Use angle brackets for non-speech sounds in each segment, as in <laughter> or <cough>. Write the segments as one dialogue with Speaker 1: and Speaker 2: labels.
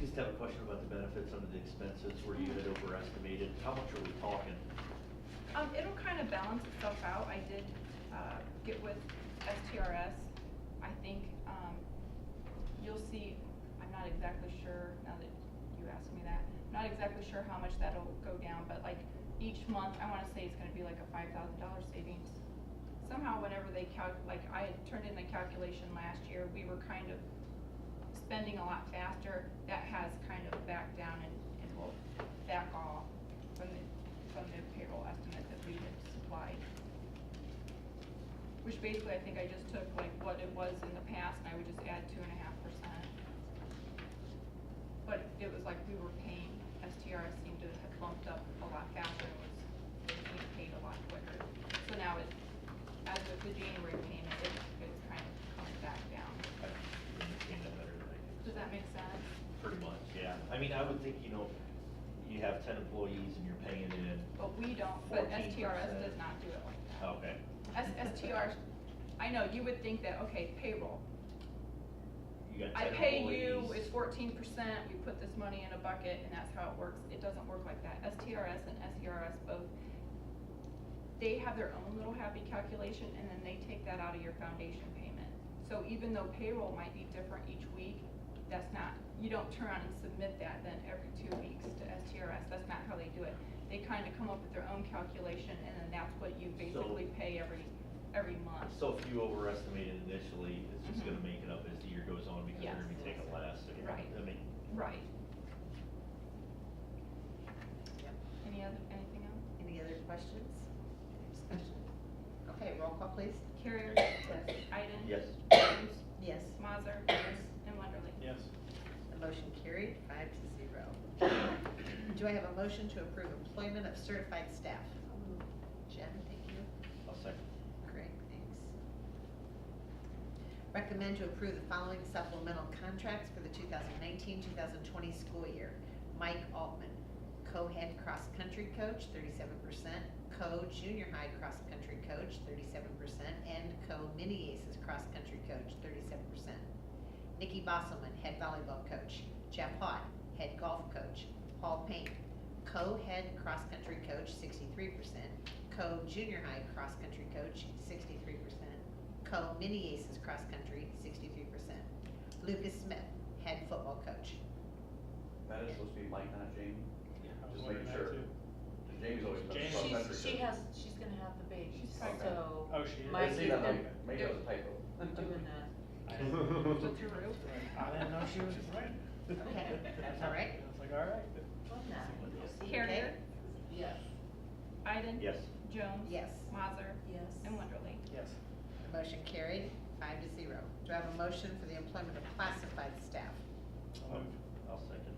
Speaker 1: just have a question about the benefits under the expenses, where you had overestimated, how much are we talking?
Speaker 2: Um, it'll kind of balance itself out. I did, uh, get with STRS. I think, um, you'll see, I'm not exactly sure, now that you asked me that, I'm not exactly sure how much that'll go down, but like each month, I wanna say it's gonna be like a five thousand dollar savings. Somehow, whenever they calc, like I had turned in the calculation last year, we were kind of spending a lot faster. That has kind of backed down and, and will back off from the, from the payroll estimate that we had supplied. Which basically, I think I just took like what it was in the past, and I would just add two and a half percent. But it was like we were paying, STRS seemed to have bumped up a lot faster, and was being paid a lot quicker. So now it, as of the January payment, it, it's kind of coming back down.
Speaker 1: I don't understand that better than I do.
Speaker 2: Does that make sense?
Speaker 1: Pretty much, yeah. I mean, I would think, you know, you have ten employees and you're paying in,
Speaker 2: But we don't, but
Speaker 1: 14%.
Speaker 2: STRS does not do it like that.
Speaker 1: okay.
Speaker 2: S, STR, I know, you would think that, okay, payroll,
Speaker 1: You got
Speaker 2: I
Speaker 1: ten
Speaker 2: pay you,
Speaker 1: employees.
Speaker 2: it's fourteen percent, we put this money in a bucket, and that's how it works, it doesn't work like that, STRS and SERS both, they have their own little happy calculation, and then they take that out of your foundation payment. So even though payroll might be different each week, that's not, you don't turn around and submit that then every two weeks to STRS, that's not how they do it. They kinda come up with their own calculation, and then that's what you basically pay every, every month.
Speaker 1: So if you overestimated initially, it's just
Speaker 2: Mhm.
Speaker 1: gonna make it up as the year goes on because they're
Speaker 2: Yes.
Speaker 1: gonna be taking less. and-
Speaker 2: Right.
Speaker 1: I mean,
Speaker 2: Right. Any other, anything else?
Speaker 3: Any other questions? Discussion? Okay, roll call please.
Speaker 2: Carrier?
Speaker 3: Yes.
Speaker 2: Iden?
Speaker 1: yes,
Speaker 2: Hughes?
Speaker 3: Yes.
Speaker 2: Mazer? And Wonderly?
Speaker 4: Yes.
Speaker 3: The motion carried, five to zero. <coughs> Do I have a motion to approve employment of certified staff? Jen, thank you.
Speaker 1: I'll second.
Speaker 3: Great, thanks. Recommend to approve the following supplemental contracts for the 2019-2020 school year. Mike Altman, co-head cross-country coach, 37%, co-junior high cross-country coach, 37%, and co-mini aces cross-country coach, 37%. Nikki Bosselman, head volleyball coach, Jeff Hott, head golf coach, Paul Payne, co-head cross-country coach, 63%, co-junior high cross-country coach, sixty-three percent. Co-mini aces cross-country, sixty-three percent. Lucas Smith, head football coach.
Speaker 5: That is supposed to be Mike, not Jamie.
Speaker 4: I was
Speaker 5: Just making
Speaker 4: wondering that
Speaker 5: sure.
Speaker 4: too.
Speaker 5: Jamie's
Speaker 1: <laughs>
Speaker 5: always been
Speaker 4: Jamie.
Speaker 5: cross country.
Speaker 6: She's, she has, she's gonna have the baby,
Speaker 2: She's pregnant.
Speaker 6: so
Speaker 4: Oh, she is.
Speaker 6: Mike,
Speaker 5: I see that,
Speaker 6: you've
Speaker 5: like, maybe it was a
Speaker 6: I'm
Speaker 5: typo.
Speaker 6: doing that.
Speaker 4: I didn't-
Speaker 2: With your roof?
Speaker 4: I didn't know she <laughs> was right.
Speaker 3: <laughs> Okay, that's all right.
Speaker 4: <laughs> I was like, all right.
Speaker 6: Well, no, we'll see.
Speaker 2: Carrier?
Speaker 6: Yes.
Speaker 2: Iden?
Speaker 1: Yes,
Speaker 2: Jones?
Speaker 3: Yes.
Speaker 2: Mazer?
Speaker 6: Yes.
Speaker 2: And Wonderly?
Speaker 4: Yes.
Speaker 3: The Motion carried, five to zero. Do I have a motion for the employment of classified staff?
Speaker 4: So moved.
Speaker 1: I'll second.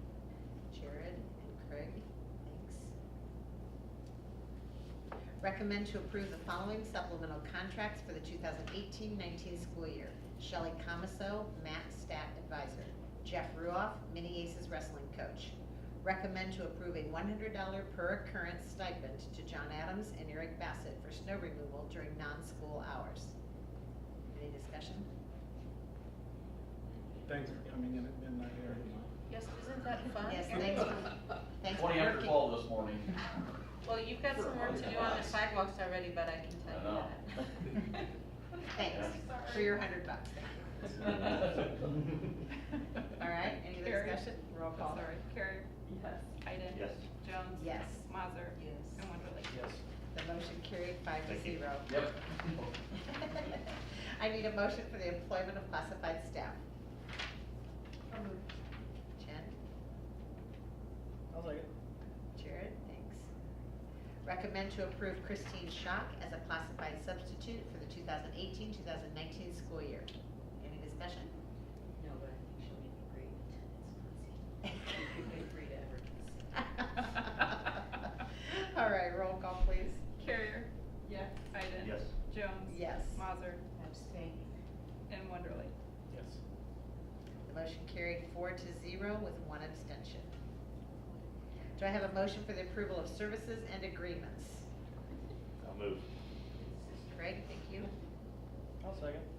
Speaker 3: Jared and Craig, thanks. Recommend to approve the following supplemental contracts for the 2018-19 school year. Shelley Comiso, Matt Stat Advisor. Jeff Ruoff, Mini Aces Wrestling Coach. Recommend to approve a $100 per occurrence stipend to John Adams and Eric Bassett for snow removal during non-school hours. Any discussion?
Speaker 4: Thanks for coming in at midnight here.
Speaker 6: Yes, isn't that fun?
Speaker 3: Yes, thanks for,
Speaker 2: <laughs>
Speaker 3: thanks for
Speaker 5: Twenty after
Speaker 3: working.
Speaker 5: twelve this morning.
Speaker 6: Well, you've got some work to do on the sidewalks already, but I can
Speaker 5: I
Speaker 6: tell
Speaker 5: know.
Speaker 6: you that. <laughs>
Speaker 3: Thanks for your 100 bucks. <laughs> All right, any other
Speaker 2: Carrier.
Speaker 3: discussion? Roll call.
Speaker 2: Sorry, Carrier?
Speaker 6: Yes.
Speaker 2: Iden?
Speaker 1: Yes.
Speaker 2: Jones?
Speaker 3: Yes.
Speaker 2: Mazer?
Speaker 6: Yes.
Speaker 2: And Wonderly?
Speaker 4: Yes.
Speaker 3: The motion carried five to
Speaker 1: Thank you.
Speaker 3: zero.
Speaker 5: Yep.
Speaker 3: <laughs> I need a motion for the employment of classified staff. Jen?
Speaker 4: I was like,
Speaker 3: Jared? Thanks. Recommend to approve Christine Schock as a classified substitute for the 2018-2019 school year. Any discussion?
Speaker 6: No, but I think she'll be great attendance. Great effort.
Speaker 3: <laughs> All right, roll call, please.
Speaker 2: Carrier? Yes. Iden?
Speaker 1: yes,
Speaker 2: Jones?
Speaker 3: Yes.
Speaker 2: Mazer?
Speaker 6: Abstain.
Speaker 2: And Wonderly?
Speaker 4: yes.
Speaker 3: The motion carried four to zero with one abstention. Do I have a motion for the approval of services and agreements?
Speaker 1: I'll move.
Speaker 3: Craig, thank you.
Speaker 4: I'll second.